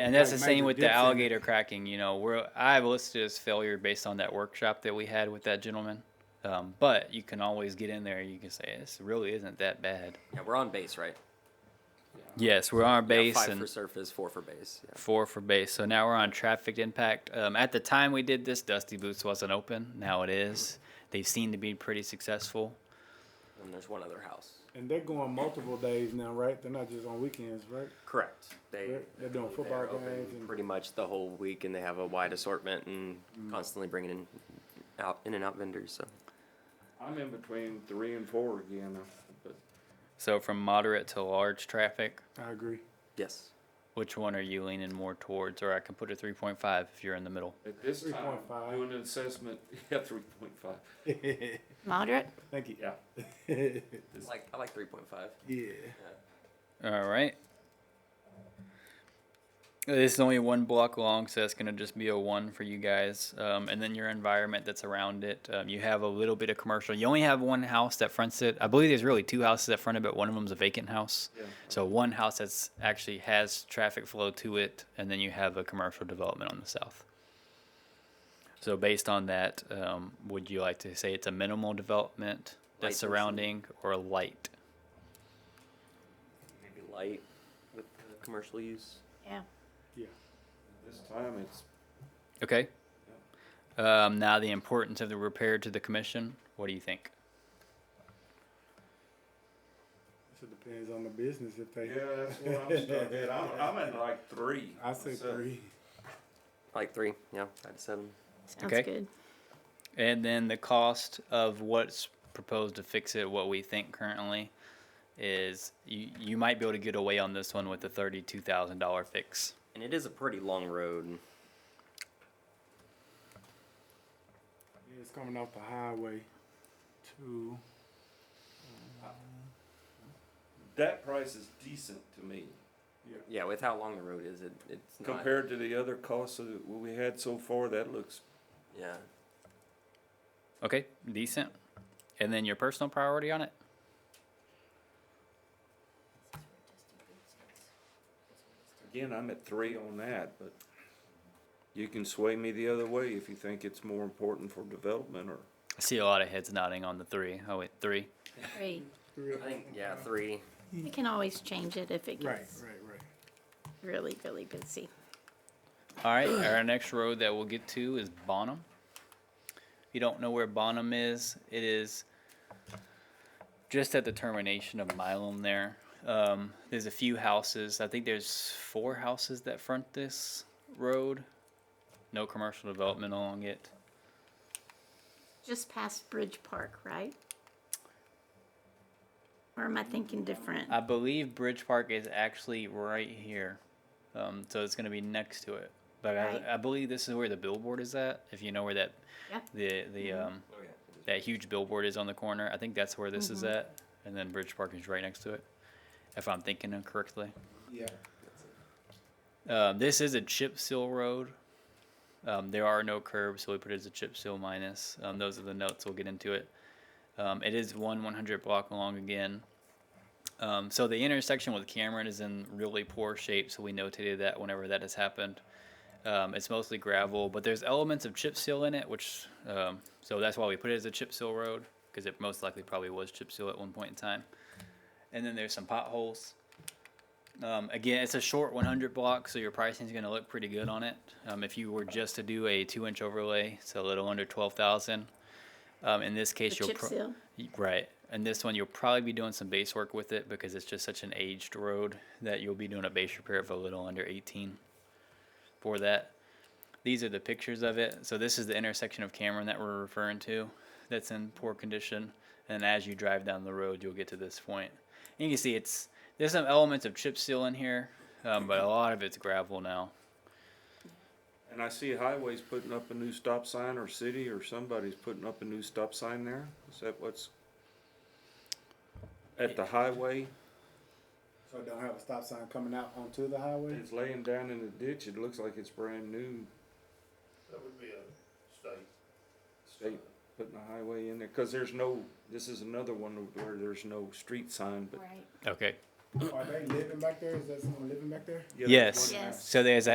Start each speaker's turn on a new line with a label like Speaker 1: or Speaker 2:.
Speaker 1: and that's the
Speaker 2: like
Speaker 1: same
Speaker 2: Major
Speaker 1: with the
Speaker 2: Dipson.
Speaker 1: alligator cracking. You know, where I've listed as failure based on that workshop that we had with that gentleman. Um, but you can always get in there. You can say this really isn't that bad.
Speaker 3: Yeah, we're on base, right?
Speaker 1: Yes, we're on our
Speaker 3: Yeah,
Speaker 1: base
Speaker 3: five
Speaker 1: and
Speaker 3: for surface, four for base. Yeah.
Speaker 1: four for base. So now we're on traffic impact. Um, at the time we did this, Dusty Boots wasn't open. Now it is. They seem to be pretty successful.
Speaker 3: And there's one other house.
Speaker 2: And they're going multiple days now, right? They're not just on weekends, right?
Speaker 3: Correct. They
Speaker 2: They're- they're doing football
Speaker 3: they're open
Speaker 2: games and-
Speaker 3: pretty much the whole week, and they have a wide assortment and
Speaker 2: Mm.
Speaker 3: constantly bringing in out in and out vendors. So
Speaker 4: I'm in between three and four again, uh, but
Speaker 1: So from moderate to large traffic,
Speaker 2: I agree.
Speaker 3: yes,
Speaker 1: which one are you leaning more towards? Or I can put a 3.5 if you're in the middle.
Speaker 4: at this time,
Speaker 2: 3.5.
Speaker 4: doing an assessment, yeah, three point five,
Speaker 5: Moderate?
Speaker 2: Thank you.
Speaker 4: yeah.
Speaker 3: I like I like three point five.
Speaker 2: yeah.
Speaker 1: All right. This is only one block long, so that's going to just be a one for you guys. Um, and then your environment that's around it. Um, you have a little bit of commercial. You only have one house that fronts it. I believe there's really two houses that front it, but one of them's a vacant house.
Speaker 4: Yeah.
Speaker 1: So one house that's actually has traffic flow to it, and then you have a commercial development on the south. So based on that, um, would you like to say it's a minimal development
Speaker 3: Light
Speaker 1: that's
Speaker 3: density.
Speaker 1: surrounding or light?
Speaker 3: Maybe light with the commercial use.
Speaker 5: Yeah.
Speaker 4: This time it's,
Speaker 1: Okay. Um, now the importance of the repair to the commission. What do you think?
Speaker 2: So it depends on the business if they.
Speaker 4: yeah, that's what I'm stuck at, I'm, I'm at like three.
Speaker 2: I say
Speaker 4: So,
Speaker 2: three.
Speaker 3: I like three. Yeah, five to seven.
Speaker 5: Sounds
Speaker 1: Okay.
Speaker 5: good.
Speaker 1: And then the cost of what's proposed to fix it, what we think currently, is you, you might be able to get away on this one with a thirty-two thousand dollar fix.
Speaker 3: And it is a pretty long road.
Speaker 2: Yeah, it's coming off the highway to.
Speaker 4: That price is decent to me,
Speaker 3: Yeah, with how long the road is, it it's not.
Speaker 4: compared to the other costs that we had so far, that looks,
Speaker 3: yeah,
Speaker 1: Okay, decent. And then your personal priority on it.
Speaker 4: again, I'm at three on that, but you can sway me the other way if you think it's more important for development or.
Speaker 1: I see a lot of heads nodding on the three. Oh wait, three.
Speaker 5: Great.
Speaker 2: Real-
Speaker 3: I think yeah three.
Speaker 5: You can always change it if it
Speaker 2: Right, right,
Speaker 5: gets
Speaker 2: right.
Speaker 5: really, really busy.
Speaker 1: All right, our next road that we'll get to is Bonham. If you don't know where Bonham is, it is just at the termination of Milam there. Um, there's a few houses. I think there's four houses that front this road. No commercial development along it.
Speaker 5: Just past Bridge Park, right? Or am I thinking different?
Speaker 1: I believe Bridge Park is actually right here. Um, so it's going to be next to it. But
Speaker 5: Right.
Speaker 1: I, I believe this is where the billboard is at. If you know where that
Speaker 5: Yeah.
Speaker 1: the the um,
Speaker 3: Oh, yeah.
Speaker 1: that huge billboard is on the corner. I think that's where this is at, and then Bridge Park is right next to it, if I'm thinking it correctly.
Speaker 2: Yeah.
Speaker 1: Um, this is a chip seal road. Um, there are no curbs, so we put it as a chip seal minus. Um, those are the notes. We'll get into it. Um, it is one 100 block long again. Um, so the intersection with Cameron is in really poor shape, so we notated that whenever that has happened. Um, it's mostly gravel, but there's elements of chip seal in it, which um, so that's why we put it as a chip seal road because it most likely probably was chip seal at one point in time. And then there's some potholes. Um, again, it's a short 100 block, so your pricing is going to look pretty good on it. Um, if you were just to do a two-inch overlay, so a little under 12,000. Um, in this
Speaker 5: The
Speaker 1: case, you'll
Speaker 5: chip
Speaker 1: pro-
Speaker 5: seal?
Speaker 1: Y- Right. And this one, you'll probably be doing some base work with it because it's just such an aged road that you'll be doing a base repair of a little under 18 for that. These are the pictures of it. So this is the intersection of Cameron that we're referring to that's in poor condition. And as you drive down the road, you'll get to this point. And you can see it's there's some elements of chip seal in here, um, but a lot of it's gravel now.
Speaker 4: And I see highways putting up a new stop sign or city or somebody's putting up a new stop sign there. Is that what's at the highway?
Speaker 2: So it don't have a stop sign coming out onto the highway?
Speaker 4: It's laying down in the ditch. It looks like it's brand new.
Speaker 6: That would be a state.
Speaker 4: State putting a highway in there because there's no, this is another one where there's no street sign, but.
Speaker 5: Right.
Speaker 1: Okay.
Speaker 2: Are they living back there? Is that someone living back there?
Speaker 4: Yeah, there's
Speaker 1: Yes.
Speaker 4: one there.
Speaker 5: Yes.
Speaker 1: So there's a